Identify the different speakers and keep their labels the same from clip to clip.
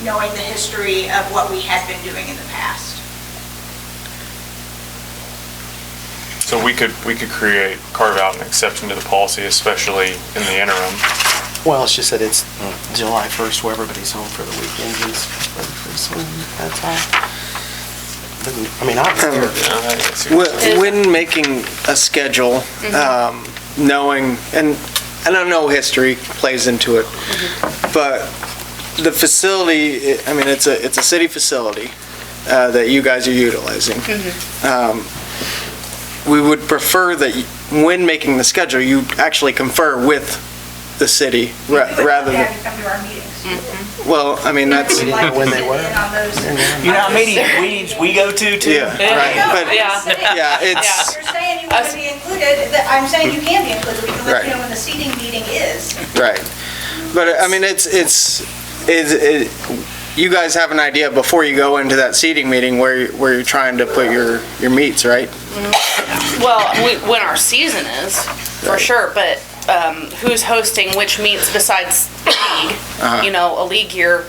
Speaker 1: knowing the history of what we had been doing in the past.
Speaker 2: So we could, we could create, carve out an exception to the policy, especially in the interim.
Speaker 3: Well, it's just that it's mm, July 1st, where everybody's home for the weekend is, so that's all. Doesn't- I mean, I
Speaker 4: Um,
Speaker 3: don't care.
Speaker 2: Yeah, I guess you-
Speaker 4: Wh- When making a schedule, um, knowing, and, and I know history plays into it, but the facility, I mean, it's a, it's a city facility uh, that you guys are utilizing. Um, We would prefer that y- when making the schedule, you actually confer with the city ra- rather
Speaker 1: Yeah,
Speaker 4: than,
Speaker 1: you come to our meetings.
Speaker 4: well, I mean, that's,
Speaker 3: We didn't know when they were.
Speaker 5: You know how many meetings we go to, too?
Speaker 4: yeah, right. But,
Speaker 1: Yeah.
Speaker 4: yeah, it's,
Speaker 1: You're saying you want to be included, that- I'm saying you can be included, we can let
Speaker 4: Right.
Speaker 1: you know when the seating meeting is.
Speaker 4: Right. But I mean, it's, it's, is, it, you guys have an idea before you go into that seating meeting where, you- where you're trying to put your, your meats, right?
Speaker 6: Well, we, when our season is, for sure, but um, who's hosting which meets besides league? You know, a league year,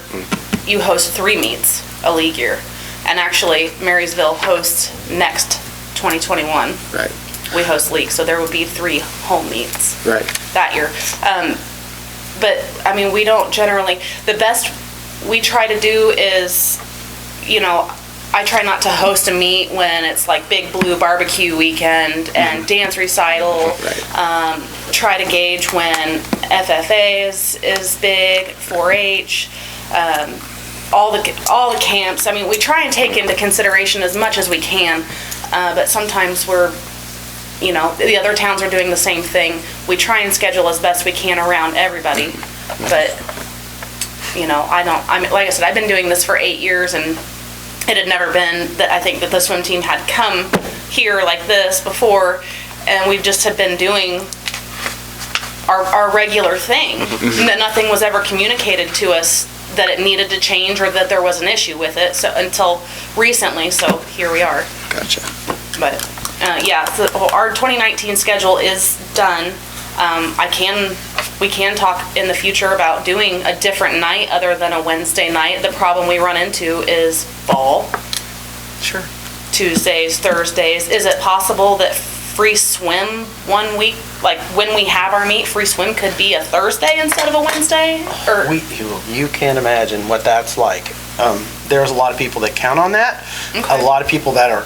Speaker 6: you host three meets a league year. And actually, Marysville hosts next 2021.
Speaker 4: Right.
Speaker 6: We host league, so there would be three home meets
Speaker 4: Right.
Speaker 6: that year. Um, but I mean, we don't generally. The best we try to do is, you know, I try not to host a meet when it's like Big Blue Barbecue Weekend and dance recital.
Speaker 4: Right.
Speaker 6: Um, try to gauge when FFA is is big, 4-H. Um, all the all the camps. I mean, we try and take into consideration as much as we can, uh, but sometimes we're you know, the other towns are doing the same thing. We try and schedule as best we can around everybody, but, you know, I don't, I mean, like I said, I've been doing this for eight years and it had never been that I think that the swim team had come here like this before and we just had been doing our, our regular thing. And That nothing was ever communicated to us that it needed to change or that there was an issue with it, so, until recently, so here we are.
Speaker 4: Gotcha.
Speaker 6: But, uh, yeah, so our 2019 schedule is done. Um, I can, we can talk in the future about doing a different night other than a Wednesday night. The problem we run into is fall,
Speaker 4: Sure.
Speaker 6: Tuesdays, Thursdays. Is it possible that free swim one week, like when we have our meet, free swim could be a Thursday instead of a Wednesday? Or,
Speaker 3: We, you- you can't imagine what that's like. Um, There's a lot of people that count on that, a lot of people that are,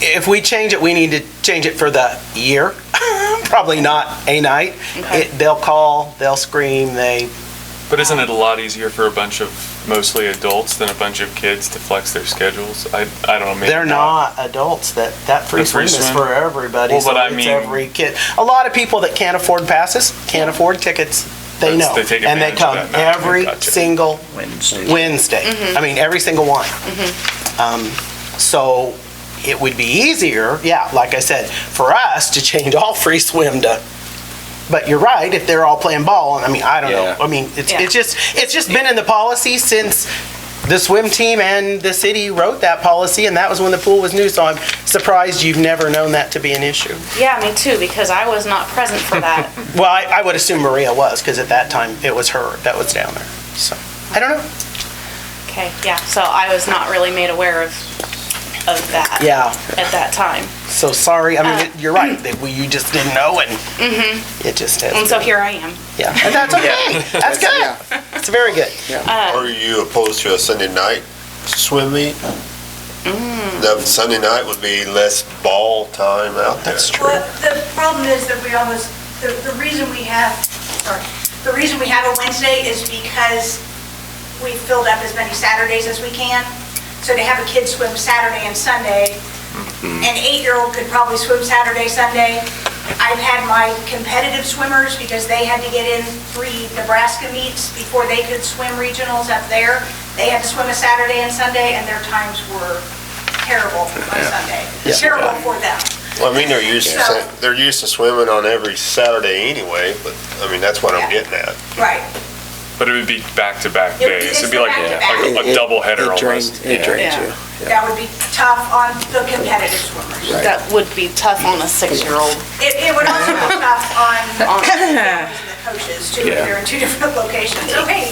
Speaker 3: if we change it, we need to change it for the year, probably not a night.
Speaker 6: Okay.
Speaker 3: It- They'll call, they'll scream, they,
Speaker 2: But isn't it a lot easier for a bunch of mostly adults than a bunch of kids to flex their schedules? I, I don't know. maybe
Speaker 3: They're not adults. That that free
Speaker 2: The uh, free
Speaker 3: swim is
Speaker 2: swim?
Speaker 3: for everybody.
Speaker 2: Well,
Speaker 3: so
Speaker 2: but I
Speaker 3: it's
Speaker 2: mean-
Speaker 3: every kid. A lot of people that can't afford passes can't afford tickets. They
Speaker 2: That's-
Speaker 3: know,
Speaker 2: they take
Speaker 3: and they
Speaker 2: advantage of that
Speaker 3: come
Speaker 2: now.
Speaker 3: every
Speaker 2: Gotcha.
Speaker 3: single
Speaker 5: Wednesday.
Speaker 3: Wednesday. I mean, every single one. Um, so it would be easier, yeah, like I said, for us to change all free swim to. But you're right. If they're all playing ball, and I mean, I don't know.
Speaker 5: Yeah.
Speaker 3: I mean, it's
Speaker 6: Yeah.
Speaker 3: it's just it's just been in the policy since the swim team and the city wrote that policy, and that was when the pool was new. So I'm surprised you've never known that to be an issue.
Speaker 6: yeah, me too, because I was not present for that.
Speaker 3: Well, I, I would assume Maria was, because at that time it was her that was down there. So I don't know.
Speaker 6: Okay, yeah, so I was not really made aware of, of that.
Speaker 3: Yeah.
Speaker 6: At that time.
Speaker 3: So sorry. I mean, it- you're right. That we, you just didn't know, and it just has.
Speaker 6: And so here I am.
Speaker 3: yeah, and that's okay. That's good. It's very good.
Speaker 7: Are you opposed to a Sunday night swim meet?
Speaker 1: Mm.
Speaker 7: The Sunday night would be less ball time out there.
Speaker 3: That's true.
Speaker 1: Well, the problem is that we always, the, the reason we have, sorry, the reason we have a Wednesday is because we filled up as many Saturdays as we can. So to have a kid swim Saturday and Sunday, an eight-year-old could probably swim Saturday, Sunday. I've had my competitive swimmers, because they had to get in three Nebraska meets before they could swim regionals up there. They had to swim a Saturday and Sunday, and their times were terrible on Sunday. Terrible for them.
Speaker 7: Well, I mean, they're used to,
Speaker 1: Yeah.
Speaker 7: sa- they're used to swimming on every Saturday anyway, but, I mean, that's what I'm
Speaker 1: Yeah.
Speaker 7: getting at.
Speaker 1: Right.
Speaker 2: But it would be back-to-back
Speaker 1: It would be-
Speaker 2: days. It'd
Speaker 1: it's
Speaker 2: be
Speaker 1: the
Speaker 2: like,
Speaker 1: back-to-back.
Speaker 2: like a double header
Speaker 4: It
Speaker 2: almost.
Speaker 4: drains, it drains
Speaker 6: Yeah.
Speaker 4: you.
Speaker 1: That would be tough on the competitive swimmers.
Speaker 6: That would be tough on a six-year-old.
Speaker 1: It, it would also be tough on, on the coaches too, if they're in two different locations. Okay,